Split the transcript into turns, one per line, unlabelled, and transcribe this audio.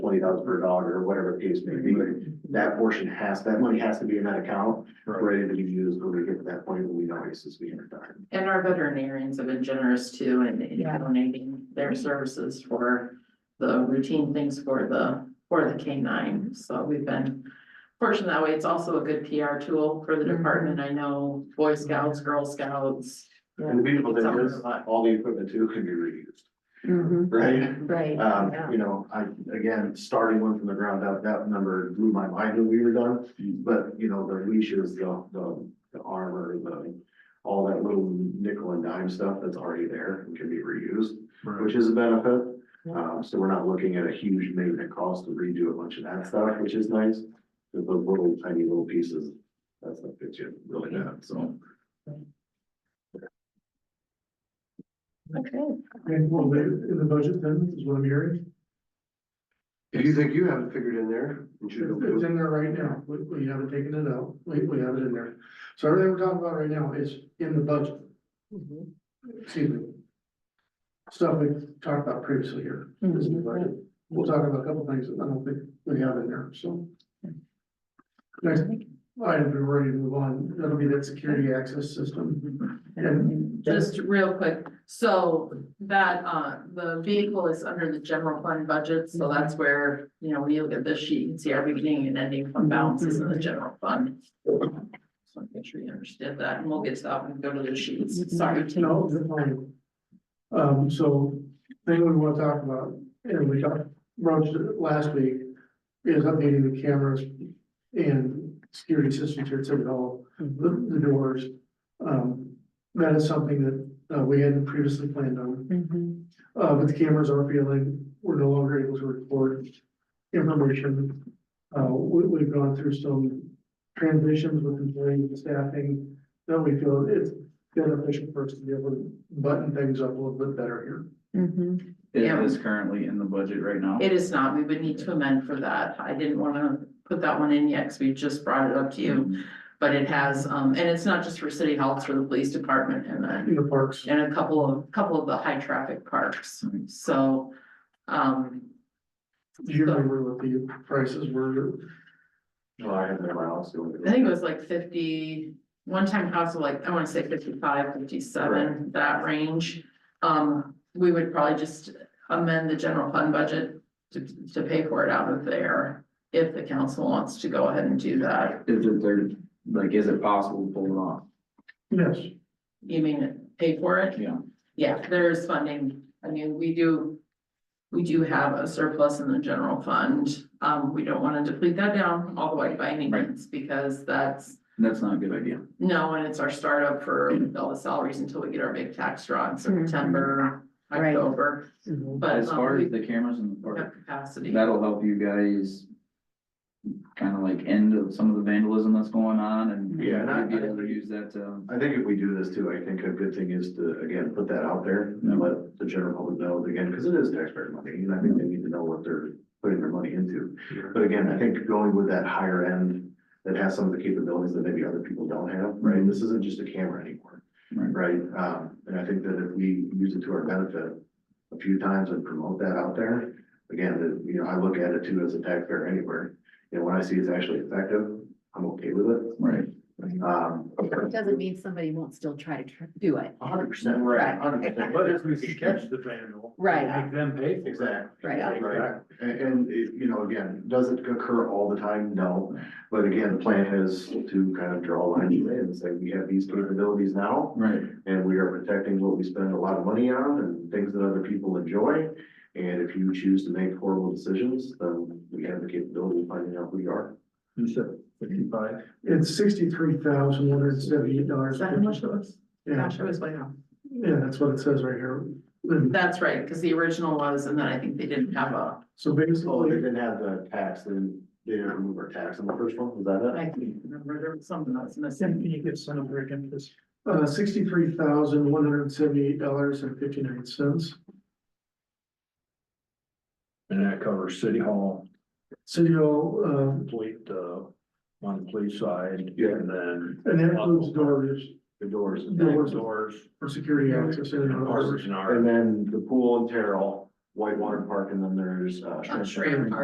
dollars per dog or whatever the case may be. That portion has, that money has to be in that account, ready to be used when we get to that point when we know it's is being done.
And our veterinarians have been generous too in in
Yeah.
donating their services for the routine things for the, for the canine. So we've been fortunate that way. It's also a good PR tool for the
Mhm.
department. I know Boy Scouts, Girl Scouts.
And the beautiful thing
Sounds
is,
like-
all the equipment too can be reused,
Mhm,
Mm-hmm, right?
Right.
Um,
yeah.
you know, I, again, starting one from the ground up, that number blew my mind when we were done. But, you know, the leashes, the, the, the armor, the, all that little nickel and dime stuff that's already there and can be reused, which is a benefit.
Yeah.
Um, so we're not looking at a huge maintenance cost to redo a bunch of that stuff, which is nice. The the little tiny little pieces, that's what fits you really bad, so.
Okay.
And well, the, the budget then is what I'm hearing.
If you think you have it figured in there, you
It's it's in there right now. We, we haven't taken it out. We, we have it in there. So everything we're talking about right now is in the budget,
Mhm.
excuse me. Stuff we talked about previously here. This is the budget. We'll talk about a couple things that I don't think we have in there, so. Next item, we're ready to move on. That'll be that security access system. And
Just real quick, so that, uh, the vehicle is under the general fund budget, so that's where, you know, when you look at this sheet, you can see our beginning and ending fund balances in the general fund. So make sure you understand that, and we'll get to that and go to the sheets, sorry.
No, you're fine. Um, so thing we want to talk about, and we talked, broached it last week, is updating the cameras and security systems here at City Hall, the, the doors. Um, that is something that, uh, we hadn't previously planned on.
Mhm.
Uh, but the cameras are failing, we're no longer able to record information. Uh, we, we've gone through some transitions with employee staffing, that we feel it's beneficial for us to be able to button things up a little bit better here.
Mhm.
Yeah.
It is currently in the budget right now.
It is not, we would need to amend for that, I didn't wanna put that one in yet, cause we just brought it up to you. But it has, um, and it's not just for city hall, it's for the police department and then
In the parks,
in a couple of, couple of the high traffic parks, so. Um,
do you remember what the prices were?
Well, I have it in my house. so-
I think it was like fifty, one time house was like, I wanna say 55, 57, that range. Um, we would probably just amend the general fund budget to, to pay for it out of there. If the council wants to go ahead and do that,
Is it there, like, is it possible to pull it off?
Yes.
you mean pay for it?
Yeah.
Yeah, there is funding. I mean, we do. We do have a surplus in the general fund. Um, we don't wanna deplete that down all the way by any means because that's.
That's not a good idea.
No, and it's our startup for all the salaries until we get our big tax draw in September,
Right.
October,
Mhm.
but
As far
um,
as
we
the cameras in the
have
park,
capacity.
that'll help you guys kind of like end of some of the vandalism that's going on and
Yeah, and I-
be able to use that, um,
I think if we do this too, I think a good thing is to, again, put that out there and let the general public know again, because it is taxpayer money, and I think they need to know what they're putting their money into. But again, I think going with that higher end that has some of the capabilities that maybe other people don't have, right? This isn't just a camera anymore,
Right.
right? Um, and I think that if we use it to our benefit a few times and promote that out there, again, that, you know, I look at it too as a taxpayer anywhere. You know, when I see it's actually effective, I'm okay with it.
right.
Um,
Doesn't mean somebody won't still try to tr- do it,
hundred percent,
Right.
right, hundred percent.
But if we can catch the vandal.
Right.
Make them pay for it.
Exactly,
right?
right. And, and, it- you know, again, does it occur all the time? No. But again, the plan is to kind of draw a line and say, we have these capabilities now
Right.
and we are protecting what we spend a lot of money on and things that other people enjoy. And if you choose to make horrible decisions, then we have the capability of finding out who you are.
You said fifty-five.
It's sixty-three thousand one hundred and seventy-eight
Is
dollars.
that how much it was?
Yeah,
Gosh, I was way off.
yeah, that's what it says right here.
That's right, cause the original was, and then I think they didn't have a,
So
Oh, they
basically,
didn't have the tax, then they didn't remove our tax on the first one, was that it?
I can't remember, there was something that was missing.
you get some break into this? Uh, sixty-three thousand, one hundred and seventy-eight dollars and fifty-nine cents.
And that covers city hall,
City Hall, um,
complete, uh, on the police side.
Yeah.
And then
uh, and that includes doors
The doors.
Doors.
doors,
for security access and doors.
harbors and our.
And then the pool and Terrell, Whitewater Park, and then there's, uh,
Shrimp.